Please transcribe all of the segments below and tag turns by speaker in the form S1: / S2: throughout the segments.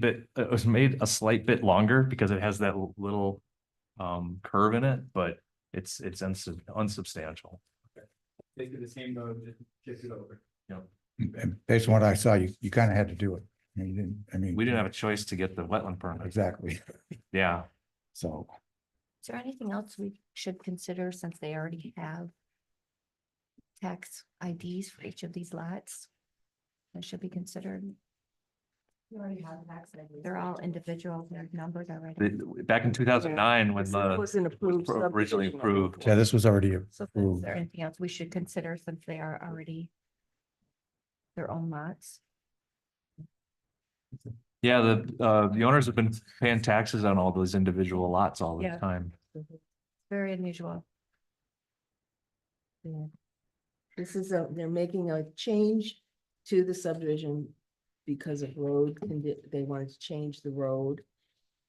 S1: bit, it was made a slight bit longer because it has that l- little um curve in it, but it's it's unsub- unsubstantial.
S2: They do the same mode, just shift it over.
S3: And based on what I saw, you, you kind of had to do it. I mean, you didn't, I mean.
S1: We didn't have a choice to get the wetland permit.
S3: Exactly.
S1: Yeah,
S3: So
S4: Is there anything else we should consider since they already have tax IDs for each of these lots? That should be considered. They're all individual, they're numbered already.
S1: The- back in two thousand nine when
S5: This
S1: the
S5: was an approved
S1: pro- originally
S5: subdivision.
S1: approved.
S3: yeah, this was already
S4: So is
S1: Hmm.
S3: approved.
S4: there anything else we should consider since they are already their own lots?
S1: Yeah, the uh the owners have been paying taxes on all those individual lots all the
S4: Yeah.
S1: time.
S4: Very unusual.
S5: Yeah. This is a, they're making a change to the subdivision because of road, condi- they wanted to change the road.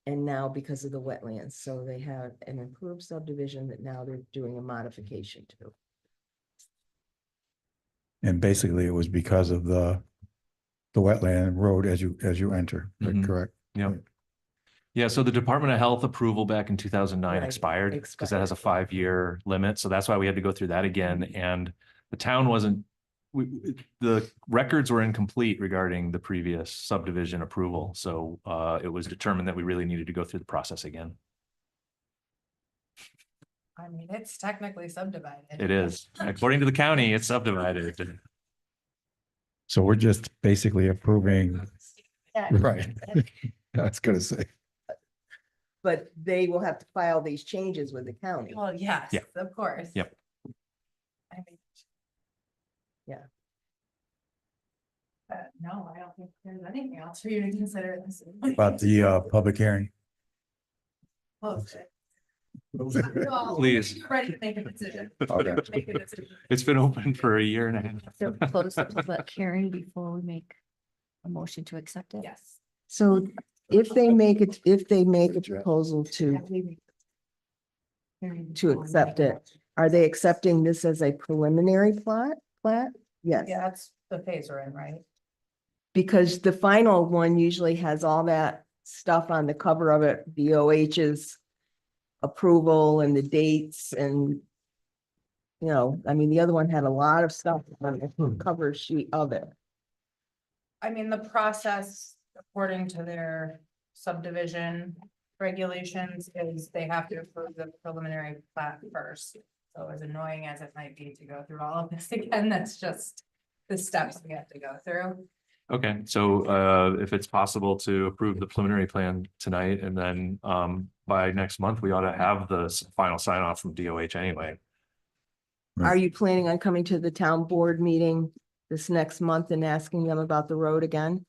S5: And now because of the wetlands, so they have an improved subdivision that now they're doing a modification to.
S3: And basically it was because of the, the wetland road as you, as you enter,
S1: Mhm.
S3: correct?
S1: Yeah. Yeah, so the Department of Health approval back in two thousand nine
S5: Right,
S1: expired because that has a
S5: expired. Mm-hmm.
S1: five-year limit. So that's why we had to go through that again. And the town wasn't, we, the records were incomplete regarding the previous subdivision approval. So uh, it was determined that we really needed to go through the process again.
S6: I mean, it's technically subdivided.
S1: It is, according to the county, it's subdivided.
S3: So we're just basically approving, right? That's gonna say,
S5: But they will have to file these changes with the county.
S6: Well, yes,
S1: Yeah.
S6: of course.
S1: Yep.
S6: I mean.
S5: Yeah.
S6: But no, I don't think there's anything else for you to consider at this.
S3: about the, uh, public hearing.
S6: Close it. Well,
S1: Please.
S6: you're Ready to make a decision.
S5: Oh,
S3: Okay.
S6: Make a decision.
S1: It's been open for a year and a half.
S4: So close the public hearing before we make a motion to accept it?
S6: Yes.
S5: So if they make it, if they make a
S3: Good job.
S5: proposal to,
S4: Hearing
S5: to
S4: before we
S5: accept
S4: make a
S5: it. are they accepting this as a preliminary plot, plat? Yes.
S6: Yeah, that's the phase we're in, right?
S5: Because the final one usually has all that stuff on the cover of it, BOH's approval and the dates and you know, I mean, the other one had a lot of stuff on
S1: Hmm.
S5: the cover sheet of it.
S6: I mean, the process according to their subdivision regulations is they have to approve the preliminary plat first. So as annoying as it might be to go through all of this again, that's just the steps we have to go through.
S1: Okay, so uh, if it's possible to approve the preliminary plan tonight and then um, by next month, we ought to have the s- final sign off from DOH anyway. Hmm.
S5: Are you planning on coming to the town board meeting this next month and asking them about the road again?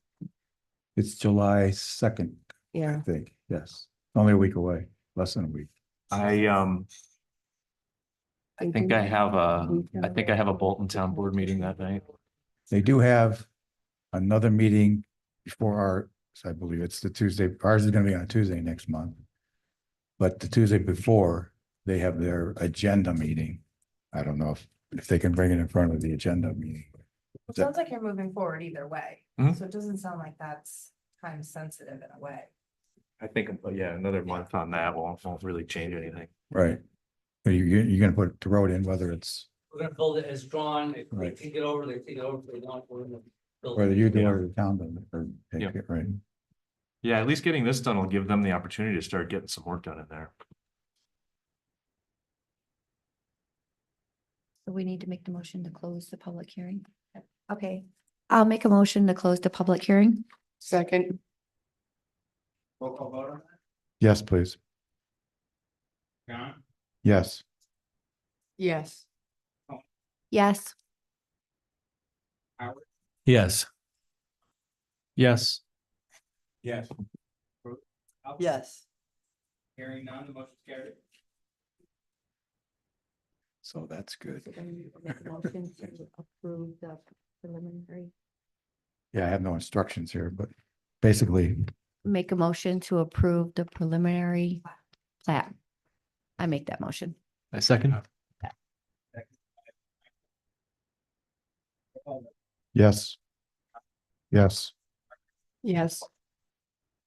S3: It's July second, I
S5: Yeah.
S3: think, yes. Only a week away, less than a week.
S1: I um, I think I have a, I think I have a Bolton Town Board meeting that night.
S3: They do have another meeting before our, so I believe it's the Tuesday, ours is gonna be on a Tuesday next month. But the Tuesday before, they have their agenda meeting. I don't know if, if they can bring it in front of the agenda meeting.
S6: It sounds like you're moving forward either way,
S1: Mhm.
S6: so it doesn't sound like that's time sensitive in a way.
S1: I think, uh, yeah, another month on that won't, won't really change anything.
S3: Right. But you, you- you're gonna put the road in, whether it's,
S7: We're gonna build it as drawn, if they
S3: Right.
S7: take it over, they take it over, if they don't, we're gonna. build
S3: whether
S7: it.
S3: you do it or the town, does it, or,
S1: Yeah.
S3: take it, right?
S1: Yeah, at least getting this done will give them the opportunity to start getting some work done in there.
S4: So we need to make the motion to close the public hearing. Okay, I'll make a motion to close the public hearing.
S5: Second.
S2: Roll call vote on
S3: Yes, please.
S2: that? John?
S3: Yes.
S5: Yes.
S4: Yes.
S2: Howard?
S1: Yes. Yes.
S2: Yes.
S5: Yes.
S2: Hearing none, the motion's carried.
S3: So that's good.
S4: Motion to approve the preliminary.
S3: Yeah, I have no instructions here, but basically,
S4: Make a motion to approve the preliminary plat. I make that motion.
S1: I second.
S3: yes. Yes.
S5: Yes.